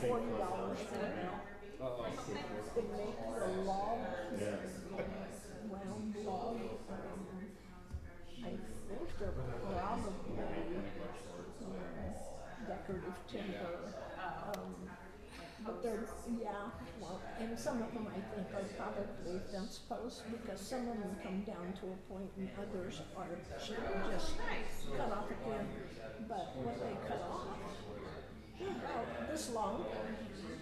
forty dollars for it. They make a long round log. I think they're probably um, decorative timber. Um, but they're, yeah, well, and some of them I think are probably fence posts because some of them come down to a point and others are just cut off at the end. But when they cut off, they're about Oh, this long.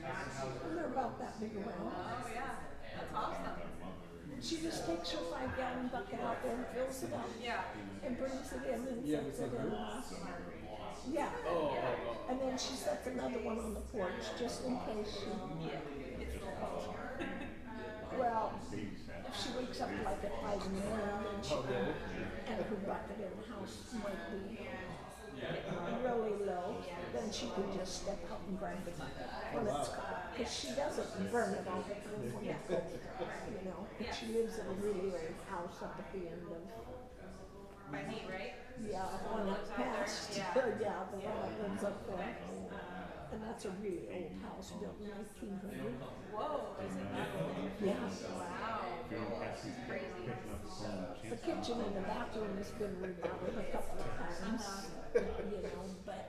And they're about that big around. Oh, yeah. That's awesome. She just takes her five gallon bucket out there and fills it up. Yeah. And brings it in and sets it in. Yeah. And then she sets another one on the porch just in case she, It's the culture. well, if she wakes up like at five in the morning, then she, and her bucket in the house might be really low, then she could just step out and grab the bucket when it's cold. Because she doesn't burn it all the time when it's cold, you know. And she lives in a really old house up at the end of By me, right? Yeah, one up past, yeah, Yeah. uh, the one that lives up there. And that's a really old house built in nineteen hundred. Whoa, is it that old? Yeah. Wow. That's crazy. The kitchen and the bathroom has been remodeled a couple of times, you know, but,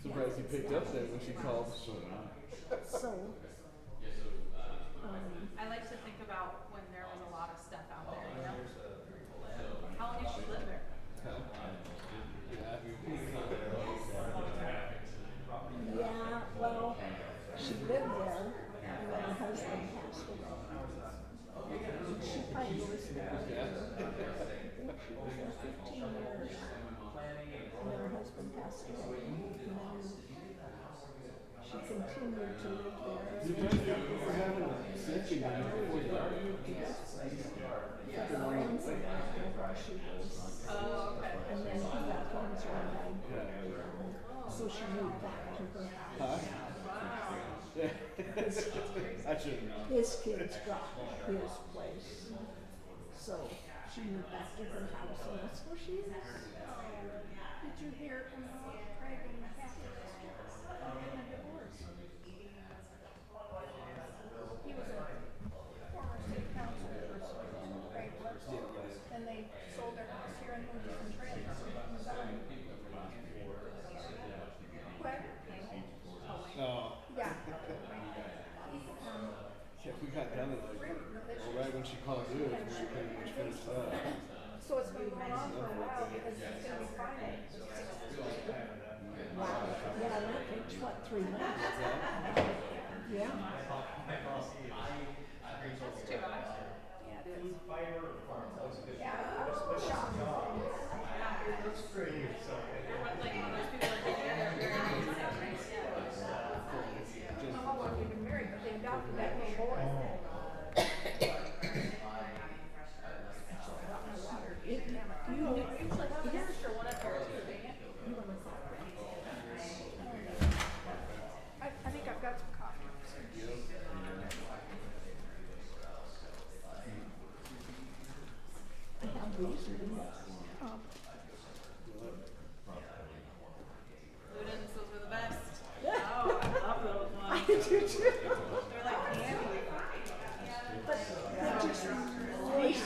Surprised you picked up then when she called. so. uh, Um, I like to think about when there was a lot of stuff out there, you know? How long did she live there? yeah, well, she lived there and then her husband passed away. And She probably was there. for fifteen years. And her husband passed away. And She continued to live there. Her friends and whatever she was. Oh, okay. And then he got cancer and died. So she moved back to her. Huh? Wow. I shouldn't know. His kids got his place. So she moved back to her house and that's where she is. Did you hear from Mark Craig and Kathy? In the divorce? He was a former city council person, Craig was, and they sold their house here and moved to some trailers. in the valley. What? No. Yeah. He, um, Yeah, we got done at like, well, right when she called you, we pretty much finished up. So it's been going on for a while because it's gonna be final. Wow. Yeah, and that takes what, three months? Yeah. That's too much. Yeah, it is. Yeah. It looks pretty, so. But like, when those people are getting there, they're very excited, right? I don't know how long we've been married, but they adopted that little boy. It, you know, it's like, yeah. Sure, one up there too, dang it. You wanna call her? I, I think I've got some coffee. I have these in the box. Um, Ludens, those were the best. Oh, I love those ones. I do too. They're like candy. But they just racing.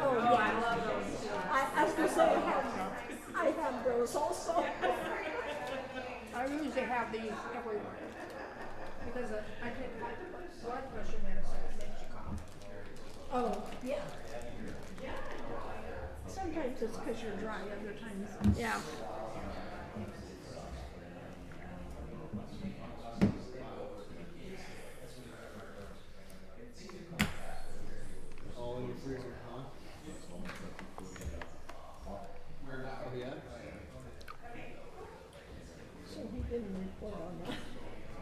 Oh, Oh, I love those too. I, I was gonna say, I have, I have those also. I usually have these everywhere. Because uh, I didn't like the blood pressure medicine, it makes you cough. Oh, yeah. Sometimes it's because you're dry, other times. Yeah. All in your freezer, huh? Oh, yeah? So he didn't report on that.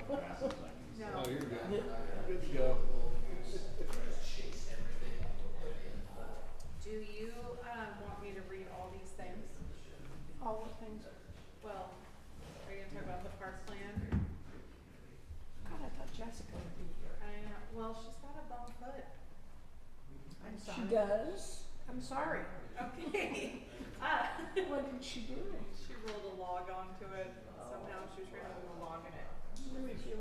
Oh, you're good. Good to go. Do you um, want me to read all these things? All the things. Well, are you gonna talk about the park plan? God, I thought Jessica would be here. I know, Uh, well, she's got a bum foot. I'm She sorry. does? I'm sorry. Okay. Uh, What did she do? she rolled a log onto it.